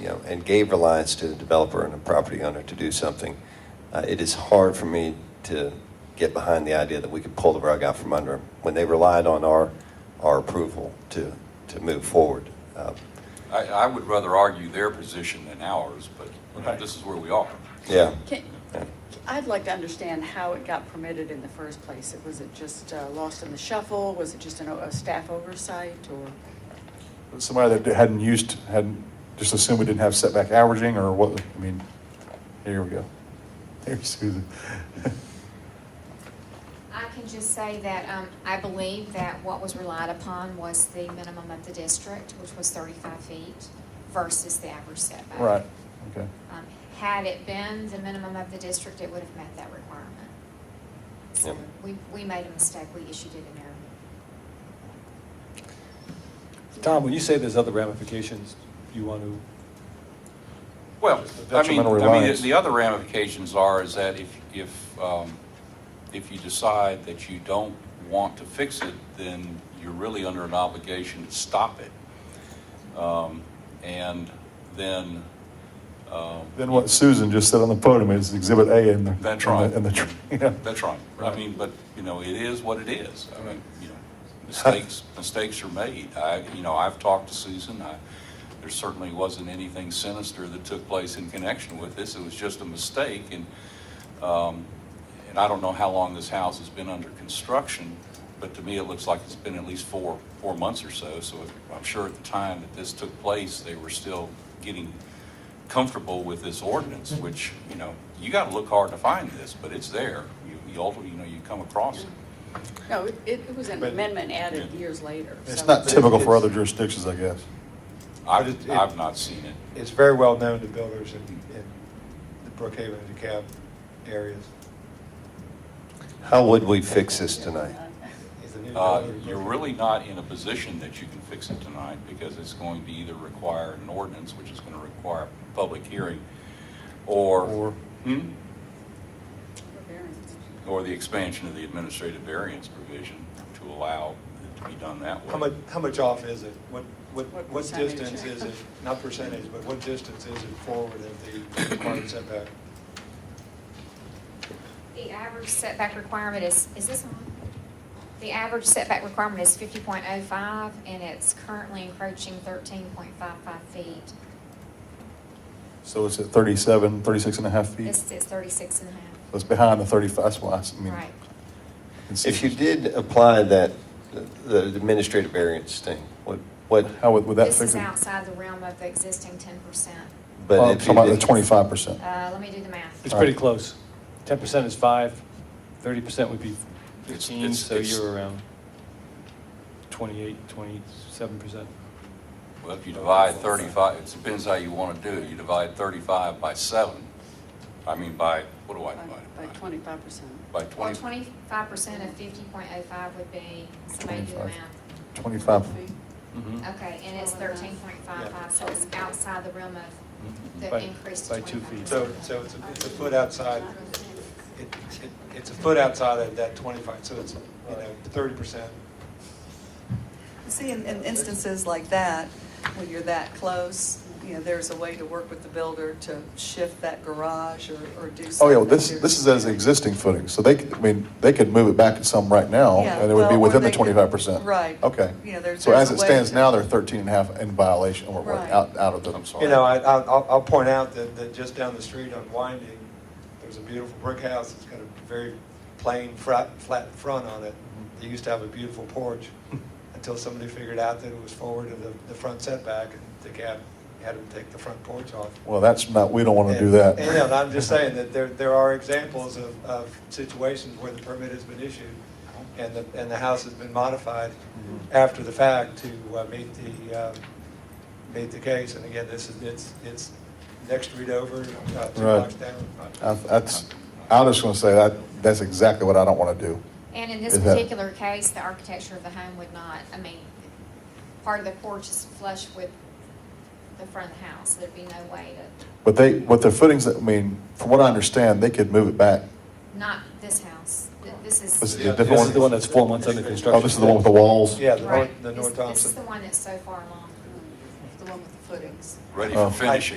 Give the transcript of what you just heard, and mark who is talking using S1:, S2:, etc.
S1: you know, and gave reliance to the developer and the property owner to do something, uh, it is hard for me to get behind the idea that we could pull the rug out from under them when they relied on our, our approval to, to move forward. Uh,
S2: I, I would rather argue their position than ours, but you know,
S3: Right.
S2: this is where we are.
S1: Yeah,
S4: Can-
S1: yeah.
S4: I'd like to understand how it got permitted in the first place. It- Was it just uh, lost in the shuffle? Was it just an o- a staff oversight or?
S3: Somebody that hadn't used, hadn't, just assumed we didn't have setback averaging or what, I mean, here we go. There's Susan.
S5: I can just say that um, I believe that what was relied upon was the minimum of the district, which was 35 feet, versus the average setback.
S3: Right, okay.
S5: Um, Had it been the minimum of the district, it would have met that requirement. So
S1: Yep.
S5: we, we made a mistake, we issued it in error.
S6: Tom, when you say there's other ramifications, you want to,
S2: Well, I mean,
S3: Detrimental
S2: I mean,
S3: reliance.
S2: the- the other ramifications are is that if, if, um, if you decide that you don't want to fix it, then you're really under an obligation to stop it. Um, And then, um,
S3: Then what Susan just said on the podium is Exhibit A in the.
S2: That's right.
S3: In the, in the tr- yeah.
S2: that's right. I mean, but, you know, it is what it is. I mean, you know, mistakes, mistakes are made. I, you know, I've talked to Susan. I, there certainly wasn't anything sinister that took place in connection with this. It was just a mistake and, um, and I don't know how long this house has been under construction, but to me, it looks like it's been at least four, four months or so. So I'm sure at the time that this took place, they were still getting comfortable with this ordinance, which, you know, you got to look hard to find this, but it's there. You, you ultimately, you know, you come across it.
S4: No, it, it was an
S7: But-
S4: amendment added years later.
S7: It's
S4: so-
S7: not
S3: Typical for
S7: It's-
S3: other jurisdictions, I guess.
S7: But it-
S2: I've,
S7: it-
S2: I've not seen it.
S7: It's very well known to builders in, in the Brookhaven and DeKalb areas.
S1: How would we fix this tonight?
S7: Is the new
S2: Uh,
S7: builder-
S2: You're really not in a position that you can fix it tonight because it's going to either require an ordinance, which is going to require a public hearing, or.
S3: Or-
S2: Hmm?
S4: Variance.
S2: Or the expansion of the administrative variance provision to allow it to be done that way.
S7: How much, how much off is it? What, what,
S4: What
S7: what
S4: percentage?
S7: distance is it? Not percentage, but what distance is it forward of the required setback?
S5: The average setback requirement is, is this on? The average setback requirement is 50.05, and it's currently encroaching 13.55 feet.
S3: So it's at 37, 36 and a half feet.
S5: It's, it's 36 and a half.
S3: It's behind the 35, that's why, I s- I mean.
S5: Right.
S3: it's-
S1: If you did apply that, the administrative variance thing, what, what?
S3: How would, would that
S5: This
S3: fix it?
S5: is outside the realm of the existing ten percent.
S1: but
S3: Oh,
S1: if
S3: talking
S1: you
S3: about the
S1: did-
S3: twenty-five percent.
S5: Uh, let me do the math.
S3: It's
S6: it's
S3: All right.
S6: pretty close. 10% is 5, 30% would be
S2: It's-
S6: 15,
S2: it's-
S6: so
S2: it's-
S6: you're around 28, 27%.
S2: Well, if you divide 35, it depends how you want to do it. You divide 35 by 7, I mean by, what do I
S4: By
S2: divide it
S4: by
S2: by?
S4: twenty-five percent.
S2: By
S5: Well,
S2: 20,
S5: twenty-five percent of fifty point oh five would be, somebody do the
S3: 25.
S5: math.
S3: Twenty-five.
S2: Mhm.
S5: Okay, and it's thirteen point five five, so it's outside the realm of the
S6: By-
S5: increase to
S6: by two
S5: twenty-five
S6: feet.
S5: percent.
S7: So, so it's, a- it's a foot outside, it, it, it's a foot outside of that twenty-five, so it's, you know, thirty percent.
S8: See, in, in instances like that, when you're that close, you know, there's a way to work with the builder to shift that garage or, or do
S3: Oh,
S8: something.
S3: yeah, well, this, this is as existing footing, so they, could- I mean, they could move it back some right now,
S8: Yeah,
S3: and it would
S8: well,
S3: be
S8: or
S3: within the
S8: they could-
S3: twenty-five percent.
S8: right.
S3: Okay.
S8: You know, there's-
S3: So
S8: there's
S3: as
S8: a
S3: it
S8: way
S3: stands
S8: to-
S3: now, they're thirteen and a half in violation, or, or
S8: Right.
S3: out, out of the.
S2: I'm sorry.
S7: You know, I, I'll, I'll- I'll point out that, that just down the street on Winding, there's a beautiful brick house. It's got a very plain, flat, flat front on it. They used to have a beautiful porch until somebody figured out that it was forward of the, the front setback and the cab had them take the front porch off.
S3: Well, that's not, we don't want to do
S7: And-
S3: that.
S7: And and I'm just saying that there, there are examples of, of situations where the permit has been issued and the, and the house has been modified
S3: Mm-hmm.
S7: after the fact to uh, meet the, uh, meet the case. And again, this is, it's, it's next street over, uh, two
S3: Right.
S7: blocks down.
S3: I- That's, I'm just gonna say that, that's exactly what I don't want to do.
S5: And in this
S3: Is that-
S5: particular case, the architecture of the home would not, I mean, part of the porch is flush with the front of the house, there'd be no way to,
S3: But they, what their footings, I mean, from what I understand, they could move it back.
S5: not this house, Th- this is.
S3: This is
S7: Yeah.
S3: the different
S6: This is the one
S3: one.
S6: that's four months under
S7: Oh,
S6: construction.
S3: Oh, this is the one with the walls?
S7: Yeah, the
S5: Right.
S7: North, the
S5: This-
S7: North
S5: This is the
S7: Thompson.
S5: one that's so far along.
S4: The one with the
S8: footings.
S2: ready
S3: Oh.
S2: for finishing.